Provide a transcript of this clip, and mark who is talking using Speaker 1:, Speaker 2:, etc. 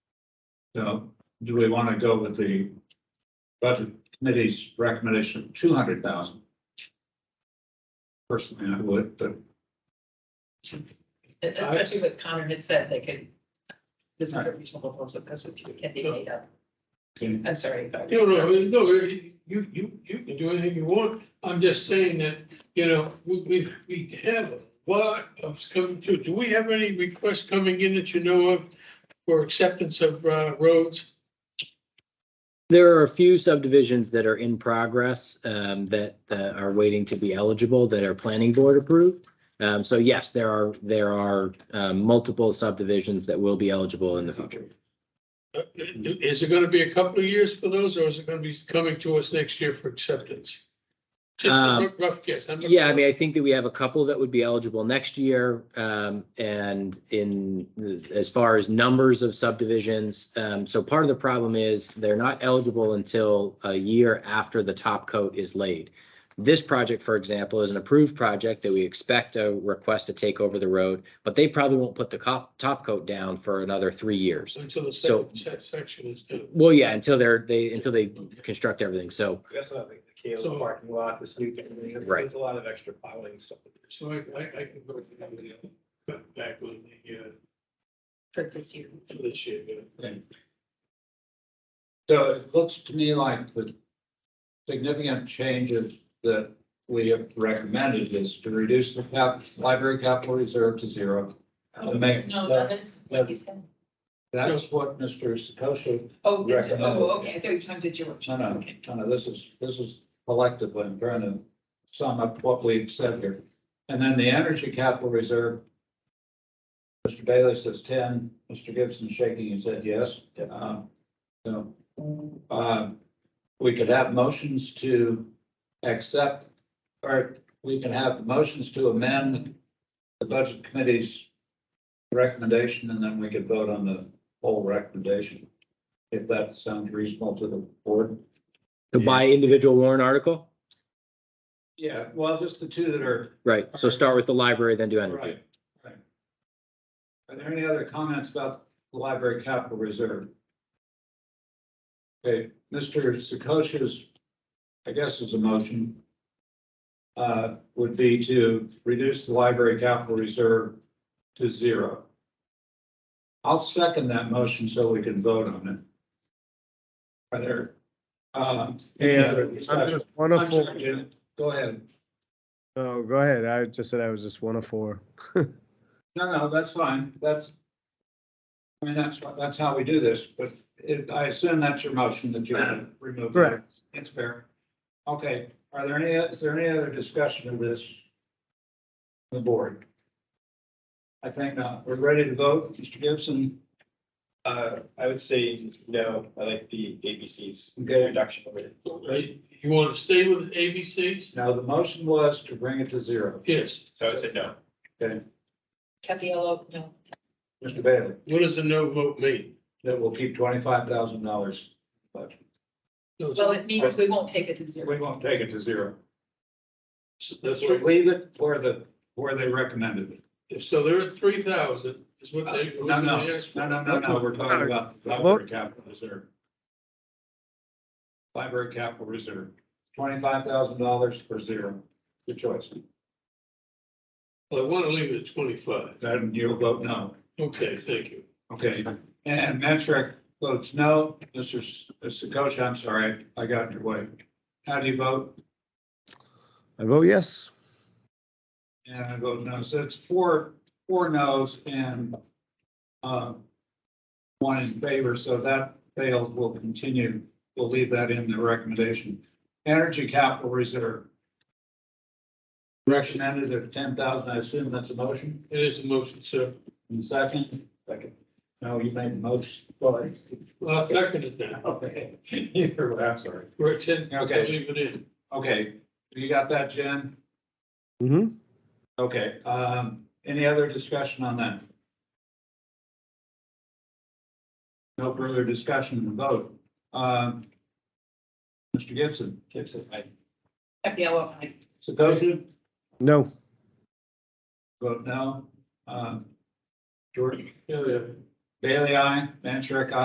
Speaker 1: So do we want to go with the budget committee's recommendation of two hundred thousand? Personally, I would, but
Speaker 2: Especially what Connor had said, they could, this is a reasonable proposal, because it can be made up.
Speaker 1: Okay.
Speaker 2: I'm sorry. but-
Speaker 3: You know, no, you, you, you can do anything you want. I'm just saying that, you know, we, we, we have a lot of coming through. Do we have any requests coming in that you know of for acceptance of, uh, roads?
Speaker 4: There are a few subdivisions that are in progress um, that uh, are waiting to be eligible that are planning board approved. Um, So yes, there are, there are um, multiple subdivisions that will be eligible in the future.
Speaker 3: Uh, Is it gonna be a couple of years for those, or is it gonna be coming to us next year for acceptance? Just a
Speaker 4: Um,
Speaker 3: rough- rough guess. I'm not-
Speaker 4: Yeah, I mean, I think that we have a couple that would be eligible next year. um, And in, as far as numbers of subdivisions, um, so part of the problem is they're not eligible until a year after the top coat is laid. This project, for example, is an approved project that we expect a request to take over the road, but they probably won't put the cop, top coat down for another three years.
Speaker 3: Until the
Speaker 4: So-
Speaker 3: second se- section is done.
Speaker 4: Well, yeah, until they're, they, until they construct everything. So,
Speaker 5: That's not like the
Speaker 3: So-
Speaker 5: Kayla parking lot, this new thing,
Speaker 4: Right.
Speaker 5: there's a lot of extra piling and stuff.
Speaker 3: So I, I, I can go to the, uh, back on the, uh,
Speaker 2: For this year.
Speaker 3: for this year, you know.
Speaker 1: so it looks to me like the significant changes that we have recommended is to reduce the cap, library capital reserve to zero. To make,
Speaker 2: No, that is what he said.
Speaker 1: that's what Mr. Satoshi,
Speaker 2: Oh, did you-
Speaker 1: Recommended.
Speaker 2: oh, okay, I thought you were talking to George.
Speaker 1: no, no,
Speaker 2: Okay.
Speaker 1: no, no, this is, this is collectively, I'm trying to sum up what we've said here. And then the energy capital reserve. Mr. Bailey says ten, Mr. Gibson shaking his head yes. Um, So, um, we could have motions to accept, or we can have motions to amend the budget committee's recommendation, and then we could vote on the whole recommendation. If that sounds reasonable to the board.
Speaker 4: to buy individual warrant article,
Speaker 1: Yeah, well, just the two that are.
Speaker 4: right? So start with the library, then do energy.
Speaker 1: right. Are there any other comments about the library capital reserve? Okay, Mr. Sakosha's, I guess is a motion. Uh, would be to reduce the library capital reserve to zero. I'll second that motion so we can vote on it. Are there? um, any other
Speaker 6: And I'm
Speaker 1: discussion?
Speaker 6: just
Speaker 1: I'm
Speaker 6: wonderful.
Speaker 1: sorry, Jim. Go ahead.
Speaker 6: No, go ahead. I just said I was just one of four.
Speaker 1: No, no, that's fine, that's. I mean, that's, what- that's how we do this, but it, I assume that's your motion that you want to remove. that. It's fair. Okay, are there any, is there any other discussion of this? The board? I think not, we're ready to vote, Mr. Gibson,
Speaker 5: Uh, I would say no, I like the ABCs,
Speaker 1: Okay.
Speaker 5: reduction of it.
Speaker 3: Right, you want to stay with ABCs?
Speaker 1: now the motion was to bring it to zero,
Speaker 3: Yes,
Speaker 5: So I would say no.
Speaker 1: okay,
Speaker 2: Capiello, no.
Speaker 1: Mr. Bailey,
Speaker 3: what does a no vote mean?
Speaker 1: that will keep twenty-five thousand dollars. But
Speaker 3: No,
Speaker 2: Well,
Speaker 3: so-
Speaker 2: it means we won't take it to zero.
Speaker 1: we won't take it to zero,
Speaker 3: so That's
Speaker 1: we
Speaker 3: right,
Speaker 1: leave it where the, where they recommended it.
Speaker 3: if so, they're at three thousand is what they.
Speaker 1: Uh, No, no, no, no, no, no, we're talking about the library capital reserve. Library capital reserve, twenty-five thousand dollars for zero, your choice.
Speaker 3: Well, I want to leave it at twenty-five,
Speaker 1: Then you'll vote no,
Speaker 3: okay, thank you.
Speaker 1: okay, and Metric votes no, Mr. Sakosha, I'm sorry, I got in your way. How do you vote?
Speaker 6: I vote yes.
Speaker 1: And I vote no, so it's four, four no's and, uh, one in favor, so that failed, we'll continue, we'll leave that in the recommendation. Energy capital reserve. Recommended at ten thousand, I assume that's a motion,
Speaker 3: It is a motion, sir,
Speaker 1: and second? Second. No, you made the motion, sorry.
Speaker 3: Well, I second it now,
Speaker 1: Okay, either way, I'm sorry.
Speaker 3: we're at ten, so
Speaker 1: Okay.
Speaker 3: leave it in.
Speaker 1: Okay, you got that, Jen?
Speaker 6: hmm
Speaker 1: Okay, um, any other discussion on that? No further discussion and vote. Um, Mr. Gibson? Gibson, I.
Speaker 2: Capiello, I.
Speaker 1: Sakosha,
Speaker 6: No,
Speaker 1: vote no. Um, Jordan,
Speaker 3: Yeah, yeah.
Speaker 1: Bailey, I, Mancheck, aye.